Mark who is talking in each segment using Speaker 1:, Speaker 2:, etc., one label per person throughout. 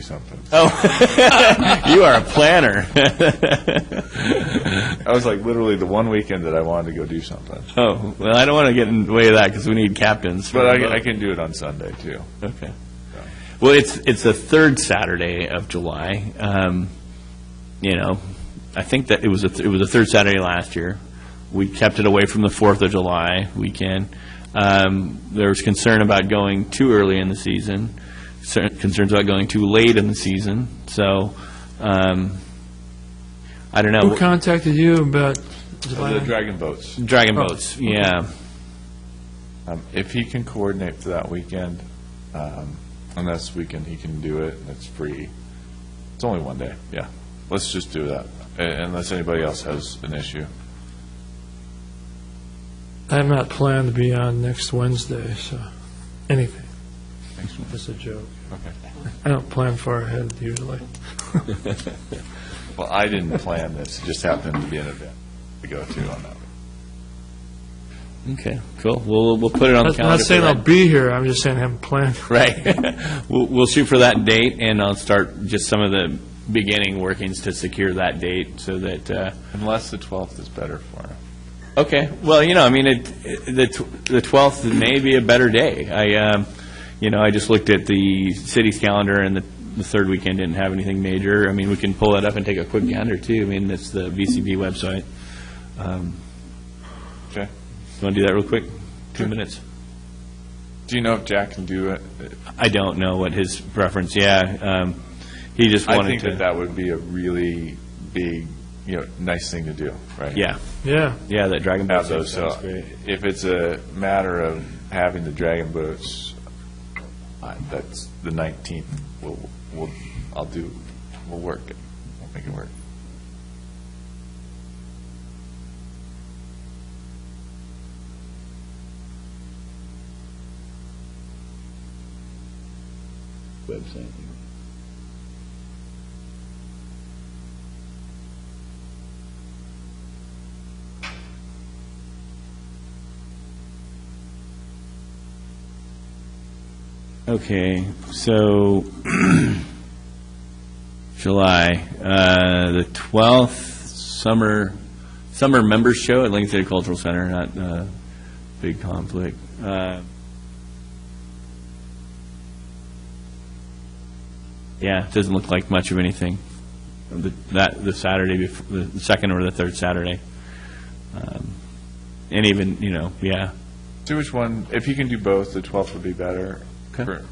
Speaker 1: something.
Speaker 2: Oh. You are a planner.
Speaker 1: I was like literally the one weekend that I wanted to go do something.
Speaker 2: Oh, well, I don't want to get in the way of that because we need captains. for
Speaker 1: But
Speaker 2: the
Speaker 1: I, I
Speaker 2: boat.
Speaker 1: can do it on Sunday too.
Speaker 2: Okay. Well, it's, it's the third Saturday of July. Um, You know, I think that it was, a th- it was the third Saturday last year. We kept it away from the Fourth of July weekend. Um, There was concern about going too early in the season, cer- concerns about going too late in the season, so, um, I don't
Speaker 3: Who
Speaker 2: know.
Speaker 3: contacted you about
Speaker 1: The
Speaker 3: July?
Speaker 1: Dragon Boats.
Speaker 2: Dragon
Speaker 3: Oh,
Speaker 2: boats, yeah.
Speaker 1: Um, If he can coordinate for that weekend, um, and this weekend he can do it, and it's free, it's only one day, yeah. Let's just do that, uh, unless anybody else has an issue.
Speaker 3: I am not planned to be on next Wednesday, so, anything. That's a joke.
Speaker 1: Okay.
Speaker 3: I don't plan far ahead usually.
Speaker 1: Well, I didn't plan this, it just happened to be an event to go to on that.
Speaker 2: Okay, cool. We'll, we'll put it on the
Speaker 3: I'm
Speaker 2: calendar.
Speaker 3: not
Speaker 2: for
Speaker 3: saying
Speaker 2: that.
Speaker 3: I'll be here, I'm just saying I haven't planned.
Speaker 2: Right. We'll, we'll shoot for that date, and I'll start just some of the beginning workings to secure that date, so that, uh,
Speaker 1: Unless the 12th is better for him.
Speaker 2: okay, well, you know, I mean, it, it- the tw- the 12th may be a better day. I, um, you know, I just looked at the city's calendar, and the, the third weekend didn't have anything major. I mean, we can pull that up and take a quick gander, too. I mean, it's the VCB website. Um,
Speaker 1: Okay.
Speaker 2: Want to do that real quick? Two minutes.
Speaker 1: Do you know if Jack can do it?
Speaker 2: I don't know what his preference, yeah. um, He just
Speaker 1: I
Speaker 2: wanted
Speaker 1: think that
Speaker 2: to,
Speaker 1: that would be a really big, you know, nice thing to do, right?
Speaker 2: yeah,
Speaker 3: Yeah,
Speaker 2: yeah, that Dragon Ball.
Speaker 1: have those, so if it's a matter of having the dragon boats, I- that's the 19th, we'll, we'll, I'll do, we'll work it, we'll make it work.
Speaker 4: website.
Speaker 2: Okay, so July, uh, the 12th, summer, summer members show at Lincoln City Cultural Center, not uh big conflict. Uh, Yeah, it doesn't look like much of anything, The- that, the Saturday, bef- the second or the third Saturday. Um, And even, you know, yeah,
Speaker 1: See which one, if you can do both, the 12th would be better.
Speaker 2: Okay.
Speaker 1: For-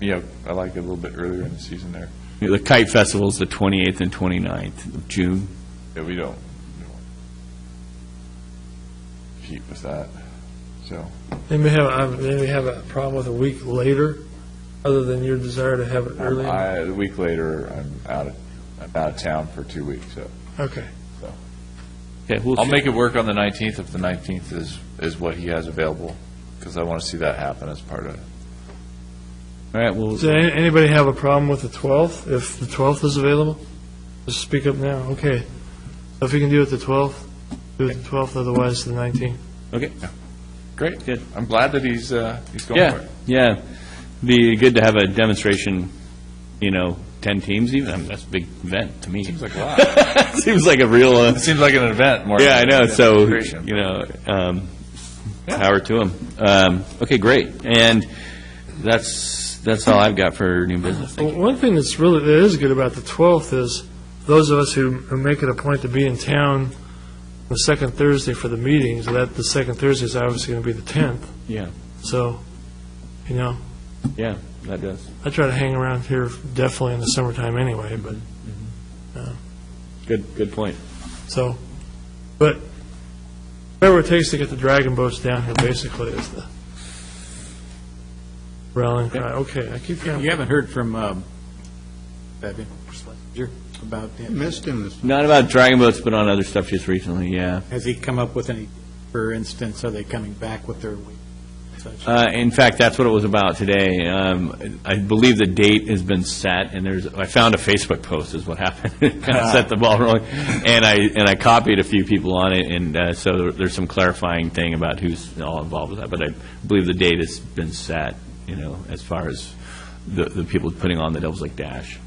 Speaker 1: Yeah, I like it a little bit earlier in the season there,
Speaker 2: Yeah, The Kite Festival's the 28th and 29th of June.
Speaker 1: Yeah, we don't we don't compete with that, so.
Speaker 3: they may have, uh, they may have a problem with a week later, other than your desire to have it
Speaker 1: Um,
Speaker 3: early.
Speaker 1: I, a week later, I'm out of, I'm out of town for two weeks, so.
Speaker 3: Okay.
Speaker 2: Okay, we'll
Speaker 1: I'll make it work on the 19th if the 19th is, is what he has available, because I want to see that happen as part of it.
Speaker 2: All right, well,
Speaker 3: Does any- anybody have a problem with the 12th, if the 12th is available? Just speak up now, okay. If you can do it the 12th, do it the 12th, otherwise the 19th.
Speaker 2: okay,
Speaker 1: Great.
Speaker 2: Good.
Speaker 1: I'm glad that he's, uh, he's going for
Speaker 2: yeah,
Speaker 1: it.
Speaker 2: yeah. Be good to have a demonstration, you know, 10 teams even, I mean, that's a big event to me.
Speaker 1: Seems like a lot.
Speaker 2: Seems like a real, uh,
Speaker 1: It seems like an event more.
Speaker 2: yeah, I
Speaker 1: than
Speaker 2: know,
Speaker 1: a
Speaker 2: so,
Speaker 1: demonstration.
Speaker 2: you know, um, power to them. Okay, great, and that's, that's all I've got for new business. Thank
Speaker 3: Well, One thing that's really, that is good about the 12th is, those of us who who make it a point to be in town the second Thursday for the meetings, that, the second Thursday is obviously going to be the 10th,
Speaker 2: you. Yeah,
Speaker 3: so, you know,
Speaker 2: yeah, that does.
Speaker 3: I try to hang around here definitely in the summertime anyway, but,
Speaker 2: Good, good point.
Speaker 3: so, but whatever it takes to get the dragon boats down here basically is the rallying cry. Okay, I keep
Speaker 5: You
Speaker 3: counting.
Speaker 5: haven't heard from um, Fabian Schlesinger about him.
Speaker 4: Missed him this
Speaker 2: Not about Dragon Boats, but on other stuff just recently, yeah.
Speaker 5: Has he come up with any, for instance, are they coming back with their week?
Speaker 2: Uh, In fact, that's what it was about today. Um, I believe the date has been set, and there's, I found a Facebook post is what happened. Kind of set the ball rolling. And I, and I copied a few people on it, and uh, so there's some clarifying thing about who's all involved with that. But I believe the date has been set, you know, as far as the, the people putting on the Devil's Lake Dash.